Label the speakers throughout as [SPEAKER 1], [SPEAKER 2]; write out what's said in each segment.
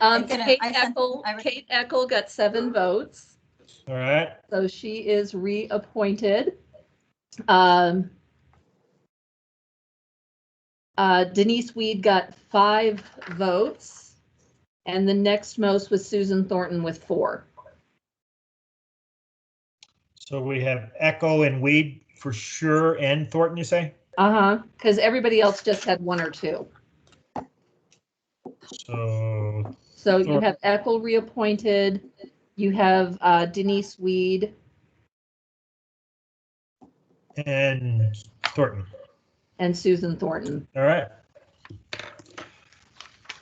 [SPEAKER 1] Um,
[SPEAKER 2] I'm gonna-
[SPEAKER 1] Kate
[SPEAKER 2] I sent-
[SPEAKER 1] Eckel,
[SPEAKER 2] I re-
[SPEAKER 1] Kate Eckel got seven votes,
[SPEAKER 3] All right.
[SPEAKER 1] so she is reappointed. Um, uh, Denise Weed got five votes, and the next most was Susan Thornton with four.
[SPEAKER 3] So we have Echo and Weed for sure, and Thornton, you say?
[SPEAKER 1] Uh-huh, because everybody else just had one or two.
[SPEAKER 3] So,
[SPEAKER 1] So you
[SPEAKER 3] Sure.
[SPEAKER 1] have Eckel reappointed, you have uh, Denise Weed
[SPEAKER 3] and Thornton.
[SPEAKER 1] and Susan Thornton.
[SPEAKER 3] All right.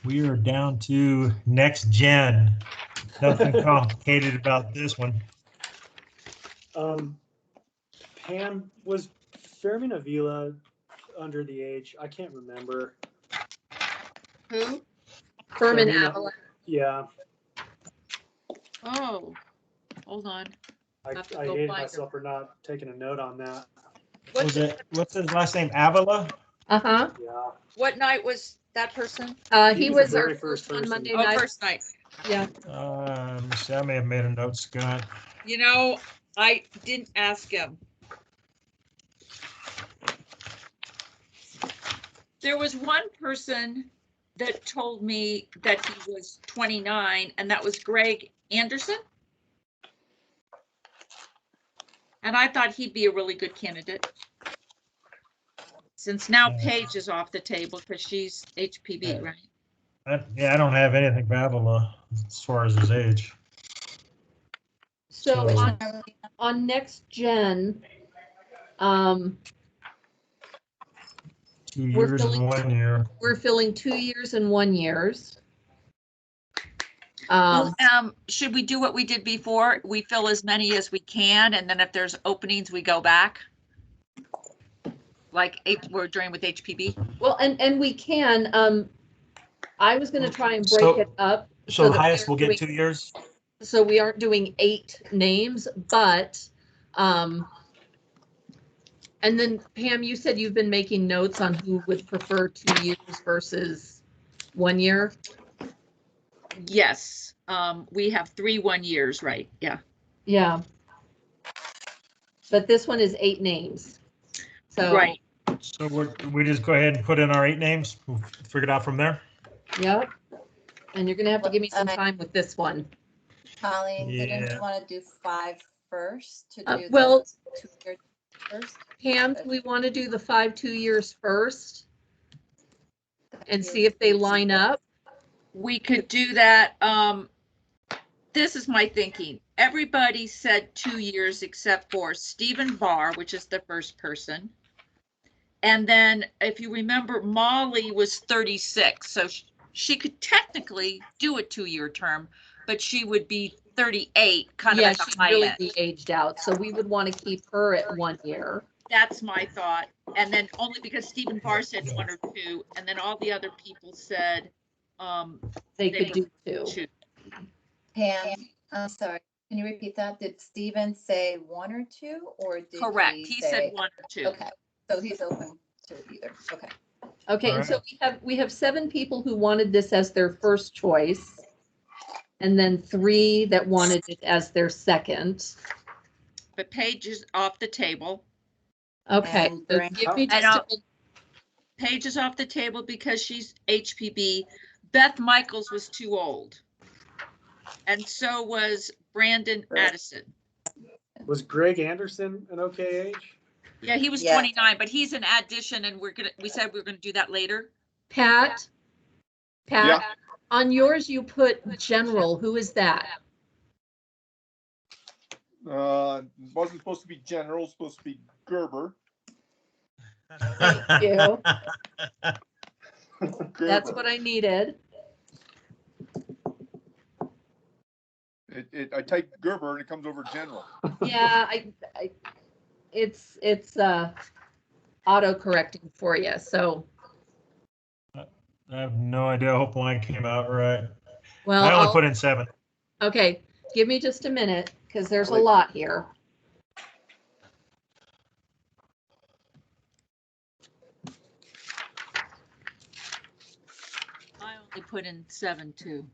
[SPEAKER 3] We are down to next gen. Nothing complicated about this one.
[SPEAKER 4] Um, Pam, was Fairman Avila under the age? I can't remember.
[SPEAKER 5] Who?
[SPEAKER 1] Furman
[SPEAKER 4] Serena.
[SPEAKER 1] Avalan.
[SPEAKER 4] Yeah,
[SPEAKER 5] Oh, hold on.
[SPEAKER 4] I,
[SPEAKER 5] Have to
[SPEAKER 4] I
[SPEAKER 5] go
[SPEAKER 4] hated
[SPEAKER 5] find her.
[SPEAKER 4] myself for not taking a note on that.
[SPEAKER 5] What,
[SPEAKER 3] Was it, what's his last name? Avila?
[SPEAKER 1] Uh-huh.
[SPEAKER 4] Yeah,
[SPEAKER 5] what night was that person?
[SPEAKER 1] Uh,
[SPEAKER 4] He
[SPEAKER 1] he
[SPEAKER 4] was
[SPEAKER 1] was
[SPEAKER 4] the
[SPEAKER 1] our
[SPEAKER 4] very first
[SPEAKER 1] first on
[SPEAKER 4] person.
[SPEAKER 1] Monday
[SPEAKER 5] Oh,
[SPEAKER 1] night.
[SPEAKER 5] first night.
[SPEAKER 1] Yeah,
[SPEAKER 3] Um, let me see, I may have made a note, Scott.
[SPEAKER 5] You know, I didn't ask him. There was one person that told me that he was 29, and that was Greg Anderson. And I thought he'd be a really good candidate. Since now
[SPEAKER 3] Yeah.
[SPEAKER 5] Paige is off the table because she's HPV, right?
[SPEAKER 3] I- Yeah, I don't have anything for Avila as far as his age.
[SPEAKER 1] so
[SPEAKER 3] So-
[SPEAKER 1] on, on next gen, um,
[SPEAKER 3] Two
[SPEAKER 1] We're
[SPEAKER 3] years and
[SPEAKER 1] filling-
[SPEAKER 3] one year.
[SPEAKER 1] we're filling two years and one years. Um,
[SPEAKER 5] Um, should we do what we did before? We fill as many as we can, and then if there's openings, we go back? Like, H- we're doing with HPB?
[SPEAKER 1] well, and, and we can, um, I was gonna try and break
[SPEAKER 3] So-
[SPEAKER 1] it up,
[SPEAKER 3] So the
[SPEAKER 1] the
[SPEAKER 3] highest will get
[SPEAKER 1] highest we-
[SPEAKER 3] two years?
[SPEAKER 1] so we aren't doing eight names, but, um, and then Pam, you said you've been making notes on who would prefer two years versus one year.
[SPEAKER 5] Yes, um, we have three one years, right? Yeah.
[SPEAKER 1] Yeah. But this one is eight names. So.
[SPEAKER 5] Right.
[SPEAKER 3] So we're, we just go ahead and put in our eight names, We'll figure it out from there?
[SPEAKER 1] Yep. And you're gonna have to give me some
[SPEAKER 2] Okay.
[SPEAKER 1] time with this one.
[SPEAKER 2] Colleen, didn't
[SPEAKER 3] Yeah.
[SPEAKER 2] you want to do five first to
[SPEAKER 1] Uh,
[SPEAKER 2] do? the
[SPEAKER 1] well-
[SPEAKER 2] two-year First?
[SPEAKER 1] Pam, do we want to do the five, two years first? And see if they line up?
[SPEAKER 5] We could do that, um, this is my thinking. Everybody said two years except for Stephen Barr, which is the first person. And then if you remember, Molly was thirty-six, so sh- she could technically do a two-year term, but she would be thirty-eight, kind of
[SPEAKER 1] Yeah,
[SPEAKER 5] at the
[SPEAKER 1] she'd
[SPEAKER 5] high
[SPEAKER 1] really
[SPEAKER 5] end.
[SPEAKER 1] be aged out, so we would want to keep her at one year.
[SPEAKER 5] That's my thought. And then only because Stephen Barr said one or two, and then all the other people said, um,
[SPEAKER 1] They could do two.
[SPEAKER 5] two.
[SPEAKER 2] Pam, I'm sorry, can you repeat that? Did Steven say one or two or did he
[SPEAKER 5] Correct, he
[SPEAKER 2] say-
[SPEAKER 5] said one or two.
[SPEAKER 2] Okay, so he's open to either, okay.
[SPEAKER 1] Okay, and
[SPEAKER 3] Alright.
[SPEAKER 1] so we have, we have seven people who wanted this as their first choice. And then three that wanted it as their second.
[SPEAKER 5] But Paige is off the table.
[SPEAKER 1] Okay,
[SPEAKER 2] And
[SPEAKER 1] so
[SPEAKER 2] bring-
[SPEAKER 1] give me
[SPEAKER 5] And
[SPEAKER 1] just a
[SPEAKER 5] I'll- Paige is off the table because she's HPB. Beth Michaels was too old. And so was Brandon
[SPEAKER 2] Right.
[SPEAKER 5] Addison.
[SPEAKER 4] was Greg Anderson an okay age?
[SPEAKER 5] Yeah, he was
[SPEAKER 2] Yeah.
[SPEAKER 5] 29, but he's an addition and we're gonna, we said we were gonna do that later.
[SPEAKER 1] Pat? Pat, on yours you put general, who is that?
[SPEAKER 6] Uh, wasn't supposed to be general, supposed to be Gerber.
[SPEAKER 1] Thank you.
[SPEAKER 6] Gerber.
[SPEAKER 1] That's what I needed.
[SPEAKER 6] It, it, I type Gerber and it comes over general.
[SPEAKER 1] Yeah, I, I, it's, it's, uh, auto correcting for you, so,
[SPEAKER 3] I have no idea. I hope mine came out right.
[SPEAKER 1] well,
[SPEAKER 3] I only
[SPEAKER 1] I'll-
[SPEAKER 3] put in seven.
[SPEAKER 1] okay, give me just a minute, because there's a
[SPEAKER 6] Wait.
[SPEAKER 1] lot here.
[SPEAKER 5] I only put in seven too.